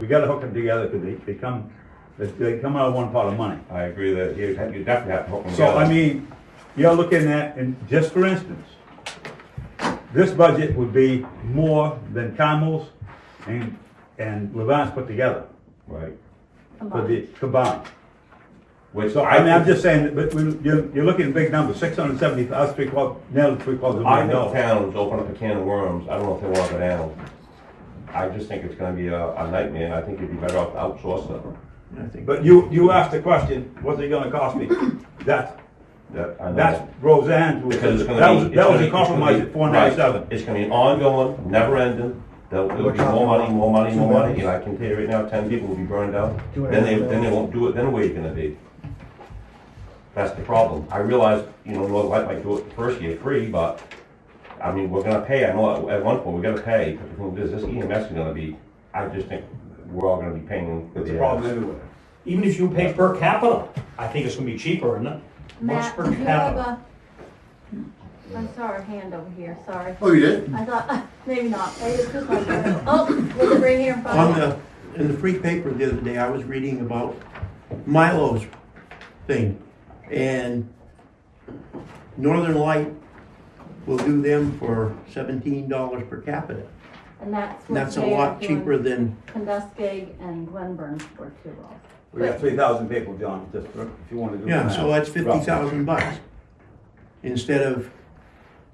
We gotta hook them together because they, they come, they- they come out of one pot of money. I agree that you, you definitely have to hook them So, together. I mean, you're looking at, and just for instance, this budget would be more than Camel's and, and Levant's put together Right, for the combined. which So, I mean, I I'm think, just saying, that- but we, you're, you're looking at big numbers, six hundred and seventy, us three quarters, nearly three quarters of a I million know dollars. towns open up a can of worms, I don't know if they wanna go down. I just think it's gonna be a, a nightmare, I think you'd be better off to outsource them. But you, you asked the question, what's it gonna cost me? That's, That, I know. that's Roseanne's, was- Because it's gonna be. that was, it's that gonna was be- a it's gonna compromise be- at four ninety-seven. right. It's gonna be an ongoing, never ending, there'll, there'll be more money, more money, more money, and I can tell you right now, ten people will be burned out. Then they, then they won't do it, then where you gonna be? That's the problem. I realize, you know, Northern Light might do it the first year free, but, I mean, we're gonna pay, I know, at one point, we're gonna pay, but the thing is, this EMS is gonna be, I just think we're all gonna be paying. for It's a the- E problem everywhere. Even if you pay per capita, I think it's gonna be cheaper, isn't it? Much Matt, per do you have capita. a, I saw her hand over here, sorry. Oh, you did? I thought, maybe not, maybe it's just my, oh, was it right here in front of On me? the, in the free paper the other day, I was reading about Milo's thing, and Northern Light will do them for seventeen dollars per capita. And that's And what that's a they are lot doing. cheaper than, Conduskeg and Glenburn were two rolls. We got three thousand people, John, just for- if you wanna do. yeah, the so math. that's fifty Roughly. thousand bucks instead of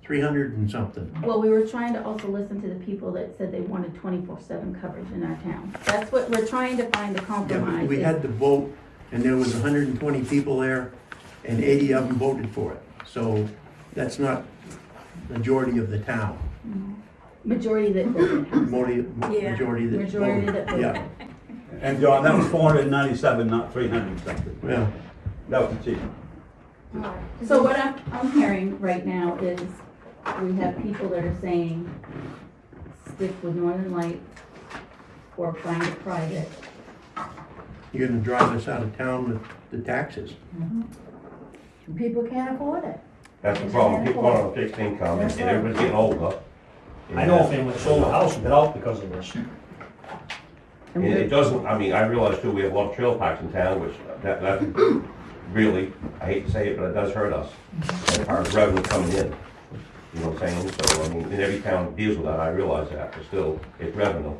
three hundred and something. Well, we were trying to also listen to the people that said they wanted twenty-four seven coverage in our town. That's what, we're trying to find the Yeah, Oh, we- compromise. We had the vote, and there was hundred and twenty people there, and eighty of them voted for it, so that's not majority of the town. Majority that voted. Majority, Yeah. majority that. Majority that voted. Yeah, And John, that was four hundred and ninety-seven, not three hundred something. yeah. That was the cheap. So what I'm, I'm hearing right now is we have people that are saying stick with Northern Light or find it private. You're gonna drive us out of town with the taxes. People can't afford it. That's the problem, people are on fixed income, and everybody's getting older. I know a family that sold a house and got out because of this. And it doesn't, I mean, I realize too, we have a lot of trail parks in town, which that, that really, I hate to say it, but it does hurt us. Our revenue coming in, you know what I'm saying? So, I mean, and every town deals with that, I realize that, but still, it's revenue.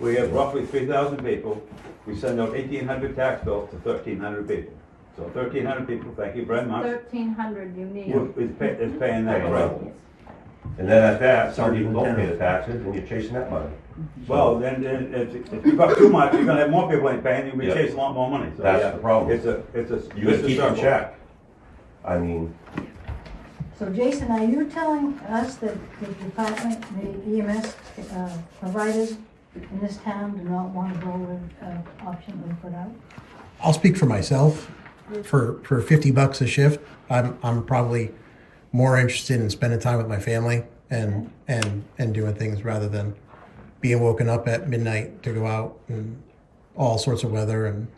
We have roughly three thousand people, we send out eighteen hundred tax bills to thirteen hundred people. So thirteen hundred people, thank you very much, Thirteen hundred you need. who is pay- is paying that rent. And then at that, some people don't pay the taxes, and you're chasing that money. Well, then, then, if, if you've got too much, you're gonna have more people ain't paying, you'll be Yeah. chasing a lot more money, so, yeah. That's the problem. It's a, it's a. You it's gotta a keep in circle. check. I mean, So Jason, are you telling us that the department, the EMS uh, providers in this town do not want to go with uh, option we put out? I'll speak for myself. For for fifty bucks a shift, I'm I'm probably more interested in spending time with my family and and and doing things rather than being woken up at midnight to go out and all sorts of weather and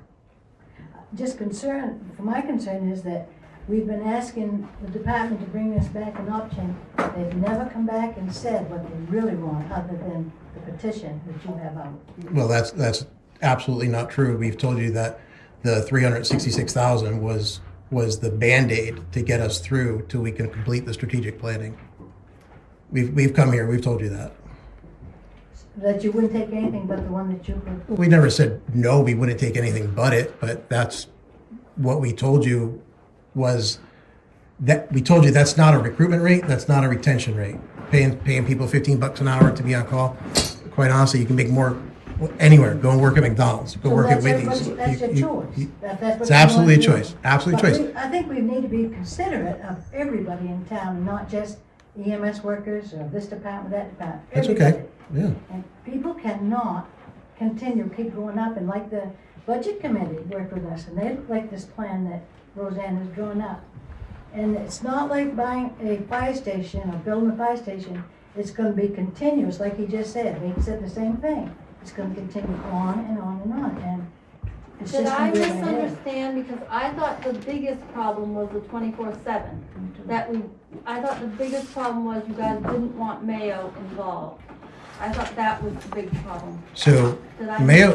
Just concern, for my concern is that we've been asking the department to bring us back an option. They've never come back and said what they really want, other than the petition that you have out. well that's that's absolutely not true. We've told you that the 366,000 was was the band-aid to get us through till we can complete the strategic planning. We've we've come here, we've told you that. That you wouldn't take anything but the one that you put. we never said no we wouldn't take anything but it but that's what we told you was that we told you that's not a recruitment rate that's not a retention rate paying paying people 15 bucks an hour to be on call quite honestly you can make more anywhere go and work at mcdonald's go So work at that's whitney's everybody's- That's You- your you- choice. you- That- that's what it's you wanna absolutely a do. choice absolute But choice we- I think we need to be considerate of everybody in town, not just EMS workers or this department, that department. that's okay everybody. yeah And people cannot continue, keep going up, and like the budget committee worked with us, and they like this plan that Roseanne has drawn up. And it's not like buying a fire station or building a fire station, it's gonna be continuous, like he just said, he said the same thing. It's gonna continue on and on and on, and it's Did just I gonna be in the head. misunderstand, because I thought the biggest problem was the twenty-four seven, that we, I thought the biggest problem was you guys didn't want Mayo involved. I thought that was the big problem. So Did I- Mayo,